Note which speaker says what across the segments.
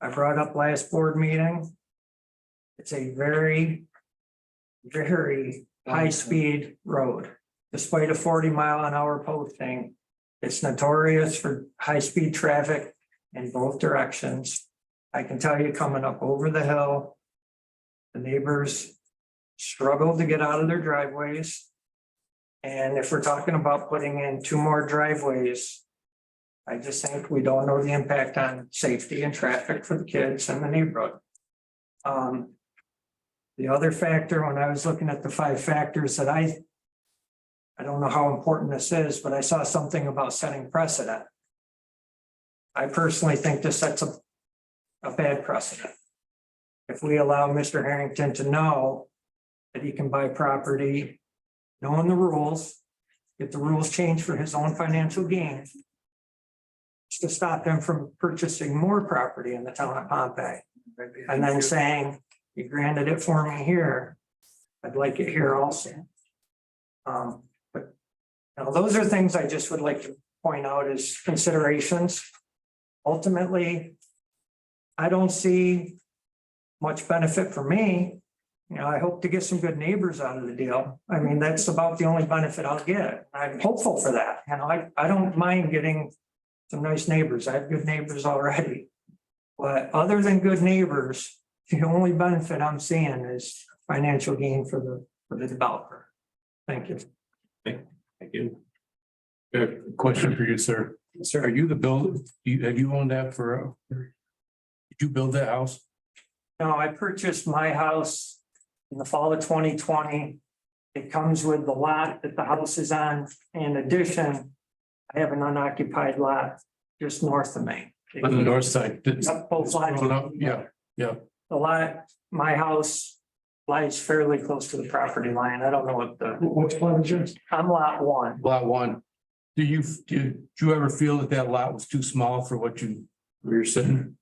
Speaker 1: I brought up last board meeting. It's a very, very
Speaker 2: Um,
Speaker 1: high-speed road. Despite a forty mile an hour posting, it's notorious for high-speed traffic in both directions. I can tell you coming up over the hill, the neighbors struggle to get out of their driveways. And if we're talking about putting in two more driveways, I just think we don't know the impact on safety and traffic for the kids and the neighborhood. Um. The other factor, when I was looking at the five factors that I. I don't know how important this is, but I saw something about setting precedent. I personally think this sets a, a bad precedent. If we allow Mr. Harrington to know that he can buy property, knowing the rules. If the rules change for his own financial gain to stop him from purchasing more property in the town of Pompey. And then saying, you granted it for me here, I'd like it here also. Um, but now those are things I just would like to point out as considerations. Ultimately, I don't see much benefit for me. You know, I hope to get some good neighbors out of the deal. I mean, that's about the only benefit I'll get. I'm hopeful for that. And I, I don't mind getting some nice neighbors. I have good neighbors already. But other than good neighbors, the only benefit I'm seeing is financial gain for the, for the developer. Thank you.
Speaker 3: Thank you. Uh, question for you, sir. Sir, are you the builder? You, have you owned that for? uh, Did you build that house?
Speaker 1: No, I purchased my house in the fall of twenty twenty. It comes with the lot that the house is on. In addition, I have an unoccupied lot just north of me.
Speaker 3: On the north side? Did-
Speaker 1: Up both sides.
Speaker 3: Going up, Yeah,
Speaker 1: The lot, my house lies fairly close to the property line. I don't know what the,
Speaker 2: What's plan is yours?
Speaker 1: I'm lot one.
Speaker 3: lot one. Do you, do you- do you ever feel that that lot was too small for what you, where you're sitting?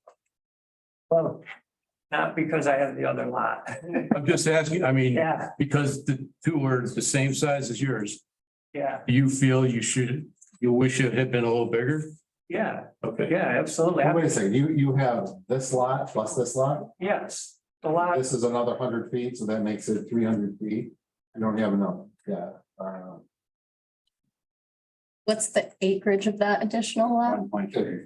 Speaker 1: Well, not because I have the other lot.
Speaker 3: I'm just asking, I mean,
Speaker 1: Yeah,
Speaker 3: because the two were the same size as yours.
Speaker 1: yeah,
Speaker 3: Do you feel you should, you wish it had been a little bigger?
Speaker 1: yeah,
Speaker 3: Okay.
Speaker 1: yeah, absolutely.
Speaker 2: Wait a second, you, you have this lot plus this lot,
Speaker 1: Yes, the lot,
Speaker 2: this is another hundred feet, so that makes it three hundred feet. I don't have enough, yeah, uh,
Speaker 4: What's the acreage of that additional lot?
Speaker 5: One point three.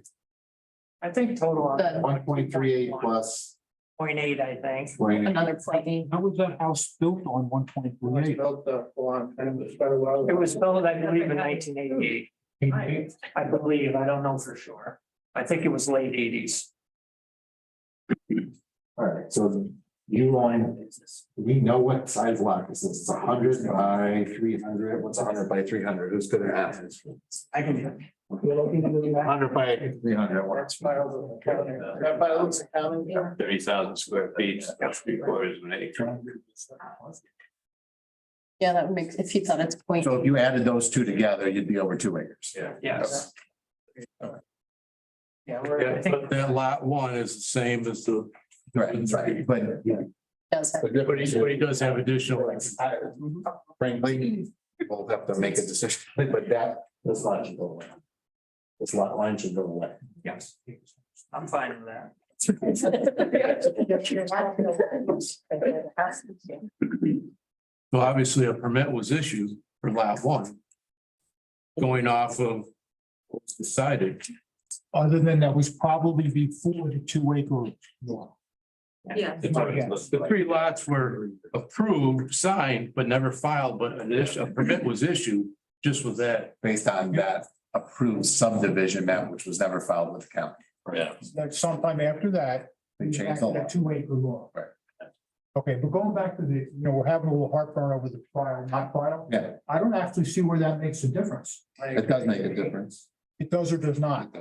Speaker 1: I think total on
Speaker 4: The-
Speaker 2: one point three eight plus
Speaker 1: point eight, I think.
Speaker 2: twenty.
Speaker 4: Another point eight.
Speaker 5: How was that house built on one point three eight?
Speaker 6: Built up a long time, it's been a while.
Speaker 1: It was built, I believe, in nineteen eighty-eight. I believe, I don't know for sure. I think it was late eighties.
Speaker 2: All right, so you line, we know what size lot this is, it's a hundred by three hundred, what's a hundred by three hundred, who's gonna ask?
Speaker 6: I can.
Speaker 2: Hundred by three hundred,
Speaker 6: That's filed in the county. That files in county.
Speaker 5: Thirty thousand square feet, that's three quarters of an acre.
Speaker 4: Yeah, that would make, if you thought it's point,
Speaker 2: So if you added those two together, you'd be over two acres. Yeah.
Speaker 1: Yes. Yeah, we're, I
Speaker 3: Yeah,
Speaker 1: think,
Speaker 3: but that lot one is the same as the,
Speaker 2: Right, right, but.
Speaker 4: does have,
Speaker 3: but he, but he does have additional.
Speaker 5: Mm-hmm.
Speaker 2: Frankly, we'll have to make a decision, but that, this lot should go away. This lot line should go away.
Speaker 1: yes. I'm fine with that.
Speaker 3: So obviously a permit was issued for lot one. Going off of what's decided.
Speaker 5: Other than that was probably before the two acre law.
Speaker 4: yeah,
Speaker 3: The three- the three lots were approved, signed, but never filed, but an issue, a permit was issued just with that.
Speaker 2: Based on that approved subdivision map, which was never filed with the county.
Speaker 3: Yeah.
Speaker 5: That sometime after that.
Speaker 2: They changed the
Speaker 5: after
Speaker 2: law.
Speaker 5: that Two acre law.
Speaker 2: Right.
Speaker 5: Okay, but going back to the, you know, we're having a little heartburn over the file, not file.
Speaker 2: Yeah.
Speaker 5: I don't actually see where that makes a difference.
Speaker 2: It does make a difference.
Speaker 5: It does or does not.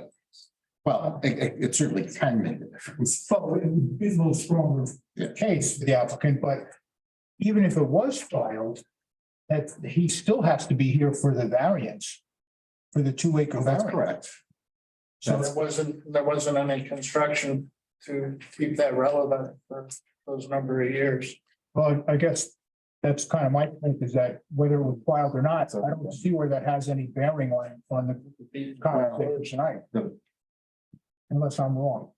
Speaker 2: Well, it, it- it certainly can make a difference.
Speaker 5: So it would be a little stronger
Speaker 2: Yeah.
Speaker 5: case for the applicant, but even if it was filed, that he still has to be here for the variance, for the two acre
Speaker 2: That's
Speaker 5: variance.
Speaker 2: correct.
Speaker 6: So there wasn't, there wasn't any construction to keep that relevant for those number of years.
Speaker 5: Well, I guess that's kind of my point is that whether it was filed or not, I don't see where that has any bearing on, on the conversation tonight.
Speaker 2: No.
Speaker 5: Unless I'm wrong.